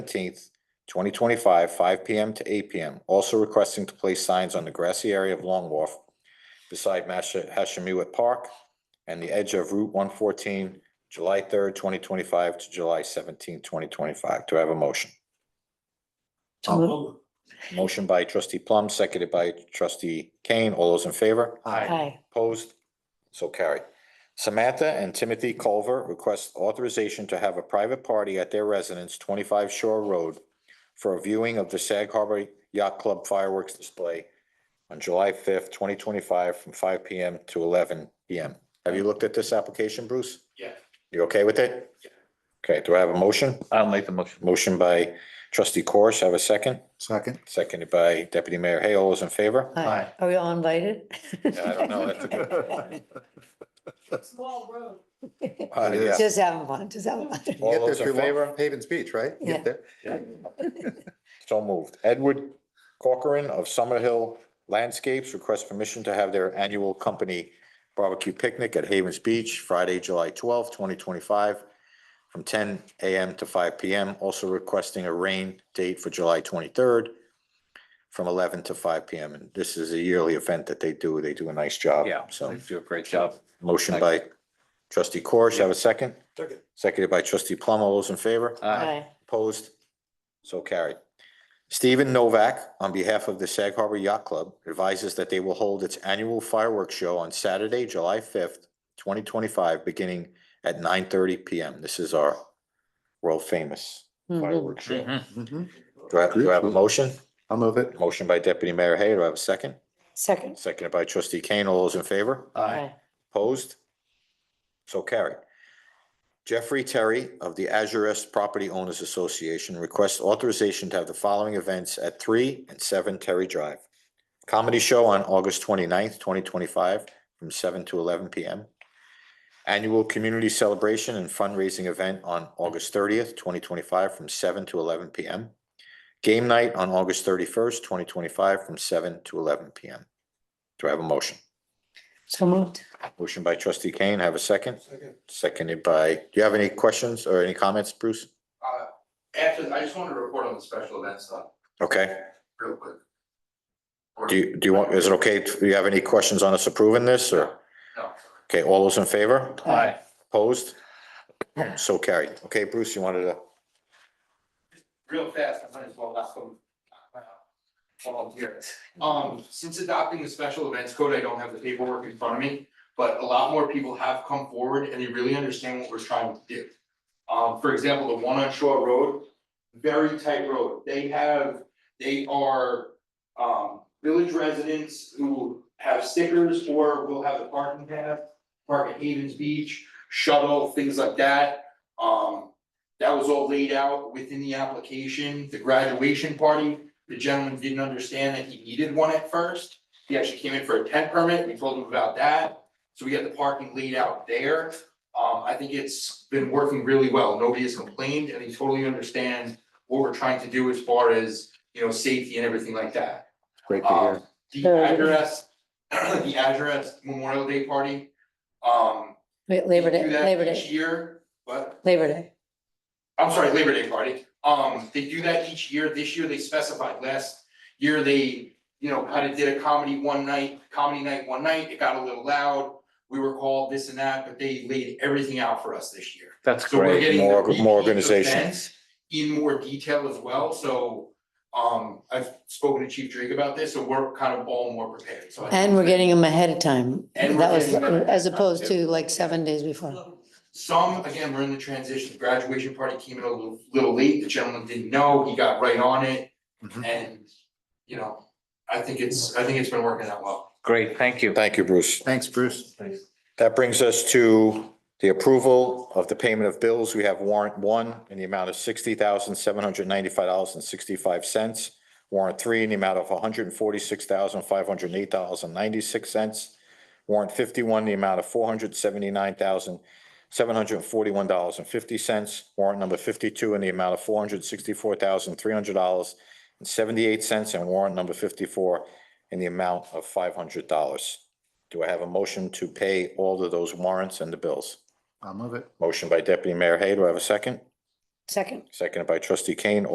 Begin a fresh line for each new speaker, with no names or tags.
seventeenth, twenty twenty-five, five P M to eight P M. Also requesting to place signs on the grassy area of Long Wharf beside Masha Hashemewett Park and the edge of Route one fourteen, July third, twenty twenty-five to July seventeenth, twenty twenty-five. Do I have a motion? Oh,
So moved.
Motion by trustee Plum, seconded by trustee Kane. All those in favor?
Aye.
Opposed? So carried. Samantha and Timothy Culver request authorization to have a private party at their residence, twenty-five Shore Road, for a viewing of the Sag Harbor Yacht Club fireworks display on July fifth, twenty twenty-five, from five P M to eleven P M. Have you looked at this application, Bruce?
Yeah.
You okay with it?
Yeah.
Okay, do I have a motion?
I'll make the motion.
Motion by trustee Corish, have a second?
Second.
Seconded by deputy mayor Hay. All those in favor?
Aye. Are we all invited?
I don't know. That's a
Get
Small road.
Uh, yeah.
Just having fun, just having fun.
All
there
those in
through
favor?
Havens Beach, right? Get
Yeah.
there.
So moved. Edward Corcoran of Summerhill Landscapes requests permission to have their annual company barbecue picnic at Havens Beach, Friday, July twelfth, twenty twenty-five, from ten AM to five PM. Also requesting a rain date for July twenty-third from eleven to five PM. And this is a yearly event that they do. They do a nice job.
Yeah, so
So
you do a great job.
motion by trustee Corish. Have a second? Second. Seconded by trustee Plum. All those in favor?
Aye.
Opposed? So carried. Stephen Novak, on behalf of the Sag Harbor Yacht Club, advises that they will hold its annual fireworks show on Saturday, July fifth, twenty twenty-five, beginning at nine thirty PM. This is our world famous
Mhm.
fireworks show.
Mhm.
Mhm.
Do I, do I have a motion?
I'll move it.
Motion by Deputy Mayor Hay. Do I have a second?
Second.
Seconded by Trustee Kane. All those in favor?
Aye.
Opposed? So carried. Jeffrey Terry of the Azurist Property Owners Association requests authorization to have the following events at three and seven Terry Drive. Comedy show on August 29th, twenty-five, from seven to eleven PM. Annual community celebration and fundraising event on August thirtieth, twenty twenty-five, from seven to eleven PM. Game night on August thirty-first, twenty twenty-five, from seven to eleven PM. Do I have a motion?
So moved.
Motion by trustee Kane, have a second? Second. Seconded by, do you have any questions or any comments, Bruce?
Uh, Actually, I just wanted to report on the special events stuff
Okay,
real quick.
do you, do you want, is it okay, do you have any questions on us approving this or?
No.
Okay, all those in favor?
Aye.
Opposed? So carried. Okay, Bruce, you wanted to,
Real fast, I might as well ask them. Volunteer. Um, since adopting the special events code, I don't have the paperwork in front of me, but a lot more people have come forward and they really understand what we're trying to do. Um, for example, the one on Shore Road, very tight road. They have, they are um village residents who have stickers or will have a parking path, park at Havens Beach, shuttle, things like that. Um, that was all laid out within the application, the graduation party. The gentleman didn't understand that he needed one at first. He actually came in for a tent permit. We told him about that. So we had the parking laid out there. Um, I think it's been working really well. Nobody has complained and he totally understands what we're trying to do as far as, you know, safety and everything like that.
Great to hear.
Um, the
Very
address, the address Memorial Day party, um.
Wait,
they
Labor Day,
do that
Labor
Each
Day,
year, but,
Labor Day.
I'm sorry, Labor Day party, um, they do that each year, this year they specified, last year they, you know, kind of did a comedy one night, comedy night one night, it got a little loud. We were called this and that, but they laid everything out for us this year.
That's
So we're
great.
getting the
More-
repeat
more organization.
events In more detail as well, so, um, I've spoken to Chief Drake about this, so we're kind of all more prepared, so. I think
And we're
that-
getting them ahead of time.
And we're
That was,
getting them-
as opposed to like seven days before.
Some, again, we're in the transition, graduation party came in a little, little late, the gentleman didn't know, he got right on it,
Mhm.
and, you know, I think it's, I think it's been working out well.
Great, thank you.
thank you, Bruce.
Thanks, Bruce.
That brings us to the approval of the payment of bills. We have warrant one in the amount of sixty thousand, seven hundred ninety-five dollars and sixty-five cents. Warrant three in the amount of one hundred and forty-six thousand, five hundred eight dollars and ninety-six cents. Warrant fifty-one, in the amount of four hundred seventy-nine thousand, seven hundred forty-one dollars and fifty cents. Warrant number fifty-two in the amount of four hundred sixty-four thousand, three hundred dollars and seventy-eight cents. And warrant number fifty-four in the amount of five hundred dollars. Do I have a motion to pay all of those warrants and the bills?
I'll move it.
Motion by deputy mayor Hay, do I have a second?
Second?
Seconded by trustee Kane,